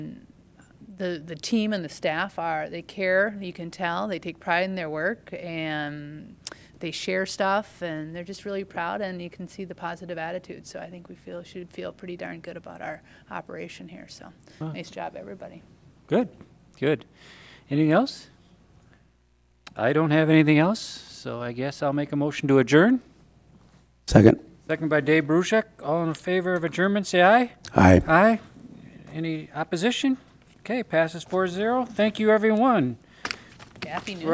the, the team and the staff are, they care, you can tell, they take pride in their work and they share stuff and they're just really proud and you can see the positive attitude. So I think we feel, should feel pretty darn good about our operation here. So Wow. nice job, everybody. Good, good. Anything else? I don't have anything else, so I guess I'll make a motion to adjourn. Second. Second by Dave Brusick. All in favor of adjournment, say aye. Aye. Aye. Any opposition? Okay, passes 4-0. Thank you, everyone. Happy New